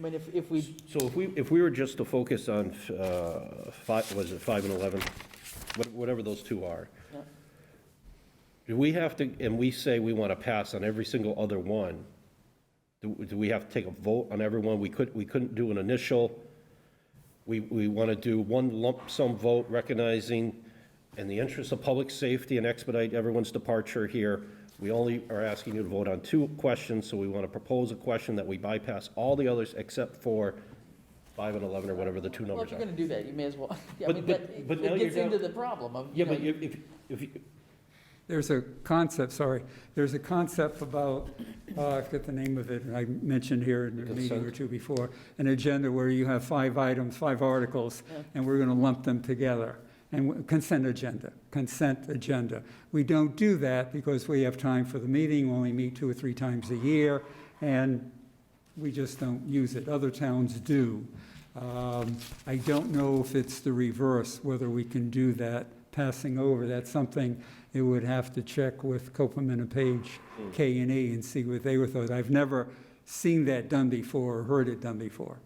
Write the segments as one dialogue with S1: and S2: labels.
S1: mean, if, if we,
S2: So if we, if we were just to focus on, uh, five, was it five and 11? What- Whatever those two are.
S1: Yeah.
S2: Do we have to, and we say we want to pass on every single other one, do, do we have to take a vote on everyone? We could, we couldn't do an initial, we, we want to do one lump sum vote recognizing in the interest of public safety and expedite everyone's departure here, we only are asking you to vote on two questions, so we want to propose a question that we bypass all the others except for five and 11 or whatever the two
S1: well,
S2: numbers
S1: if you're
S2: are.
S1: gonna do that, you may as well, Yeah, I
S2: But-
S1: mean,
S2: but-
S1: that, it
S2: but now you're
S1: it gets
S2: down-
S1: into the problem of, you
S2: Yeah,
S1: know,
S2: but if, if, if, you-
S3: There's a concept, sorry, there's a concept about, uh, I forget the name of it, and I mentioned here in a meeting or
S2: Consent.
S3: two before, an agenda where you have five items, five articles,
S1: Yeah.
S3: and we're going to lump them together. And w- consent agenda, consent agenda. We don't do that because we have time for the meeting, we only meet two or three times a year, and we just don't use it. Other towns do. Um, I don't know if it's the reverse, whether we can do that, passing over. That's something it would have to check with Copeland and Page,
S2: Hmm.
S3: K and E, and see what they were thought. I've never seen that done before or heard it done before.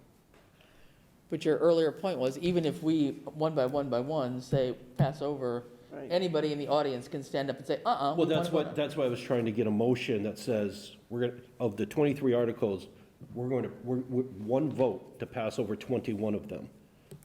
S1: but your earlier point was, even if we, one by one by one, say, pass over, anybody in the audience can stand up and say, uh-uh. we
S2: Well,
S1: wanna
S2: that's
S1: vote
S2: what,
S1: on-
S2: that's why I was trying to get a motion that says, we're going, to of the 23 articles, we're going to, we're, we're- one vote to pass over 21 of them.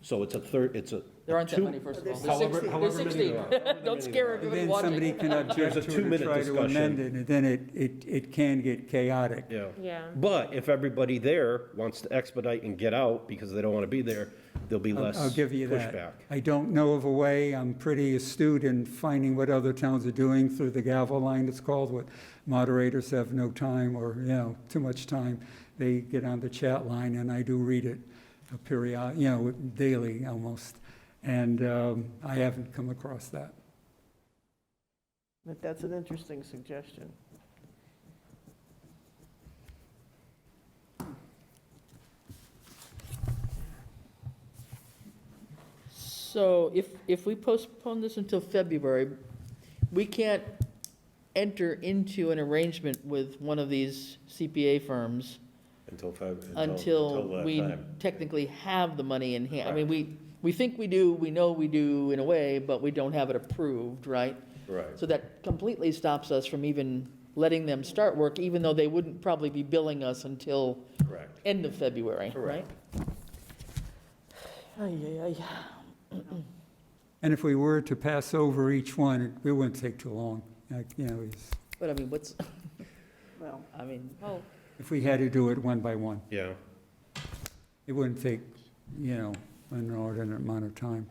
S2: So it's a third, it's a.
S1: There aren't that
S2: two-
S1: many, first of all. There's
S2: However-
S1: 16
S2: however
S1: There's
S2: many
S1: 16.
S2: there are. However many
S1: Don't
S2: there
S1: scare
S2: are.
S1: everyone
S3: Then somebody
S1: watching.
S3: can object
S2: a
S3: to it or
S2: two-minute
S3: try to amend it,
S2: discussion.
S3: and then it, it, it can get chaotic.
S2: Yeah.
S4: Yeah.
S2: But if everybody there wants to expedite and get out because they don't want to be there, there'll be
S3: I'll-
S2: less
S3: I'll give you that.
S2: pushback.
S3: I don't know of a way. I'm pretty astute in finding what other towns are doing through the gavel line, it's called, what moderators have no time or, you know, too much time. They get on the chat line, and I do read it uh, period, you know, daily almost. And um, I haven't come across that.
S5: But that's an interesting suggestion.
S1: So if, if we postpone this until February, we can't enter into an arrangement with one of these CPA firms
S6: Until five.
S1: until
S6: that
S1: we
S6: time.
S1: technically have the money in hand. I mean, we, we think we do, we know we do in a way, but we don't have it approved, right?
S6: Right.
S1: So that completely stops us from even letting them start work, even though they wouldn't probably be billing us until
S6: Correct.
S1: end of February, right?
S6: Correct.
S1: Ay, ay, ay.
S3: And if we were to pass over each one, it- it wouldn't take too long. Like, You know, it's-
S1: But I mean, what's,
S5: Well,
S1: I mean,
S4: Oh,
S3: if we had to do it one by one,
S2: Yeah.
S3: it wouldn't take, you know, an inordinate amount of time.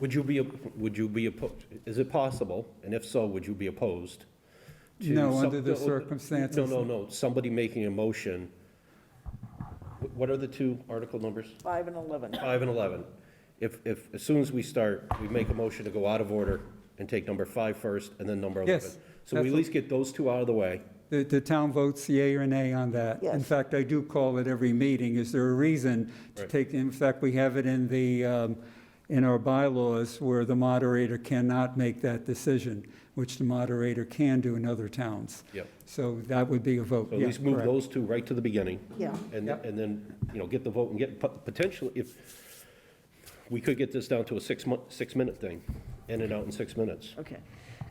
S2: Would you be, op- would you be, oppo- is it possible? And if so, would you be opposed? to
S3: No,
S2: some-
S3: under the
S2: no,
S3: circumstances.
S2: No, no, no, somebody making a motion. Wh- What are the two article numbers?
S5: 5 and 11.
S2: Five and 11. If, if, as soon as we start, we make a motion to go out of order and take number five first and then number 11.
S3: Yes,
S2: So we
S3: that's
S2: at
S3: what-
S2: least get those two out of the way.
S3: The, the town votes yea or nay on that. In
S5: Yes.
S3: fact, I do call it every meeting. Is there a reason to
S2: Right.
S3: take, in fact, we have it in the, um, in our bylaws where the moderator cannot make that decision, which the moderator can do in other towns.
S2: Yep.
S3: So that would be a vote,
S2: So at
S3: yeah,
S2: least move
S3: correct.
S2: those two right to the beginning.
S5: Yeah.
S2: And,
S3: Yep.
S2: and then, you know, get the vote and get, pot- potentially, if, we could get this down to a six month, six-minute thing, in and out in six minutes.
S5: Okay.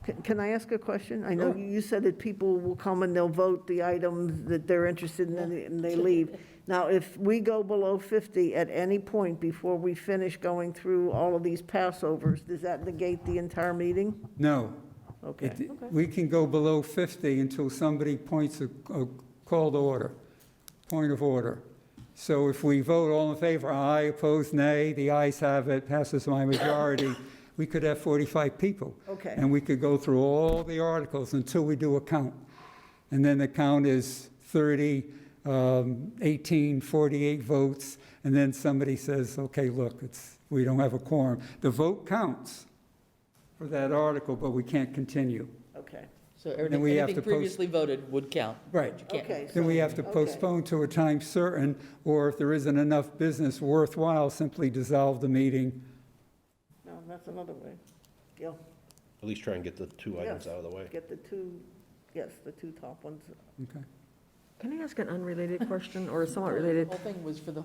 S5: C- Can I ask a question? I know you said that people will come and they'll vote the items that they're interested in and they- and they leave. Now, if we go below 50 at any point before we finish going through all of these passovers, does that negate the entire meeting?
S3: No.
S5: Okay.
S3: It- We can go below 50 until somebody points a, a call to order, point of order. So if we vote all in favor, aye, opposed, nay, the ayes have it, passes by majority, we could have 45 people.
S5: Okay.
S3: And we could go through all the articles until we do a count. And then the count is 30, um, 18, 48 votes, and then somebody says, okay, look, it's, we don't have a quorum. The vote counts for that article, but we can't continue.
S5: Okay.
S1: so everything,
S3: we have
S1: anything
S3: to post-
S1: previously voted would count.
S3: Right.
S1: You can't-
S5: Okay.
S3: Then we have to
S5: Okay.
S3: postpone to a time certain, or if there isn't enough business worthwhile, simply dissolve the meeting.
S5: No, that's another way. Yeah,
S2: At least try and get the two items
S5: Yes.
S2: out of the way.
S5: get the two, yes, the two top ones
S3: Okay.
S7: Can I ask an unrelated question or somewhat
S1: The
S7: related?
S1: whole thing was for the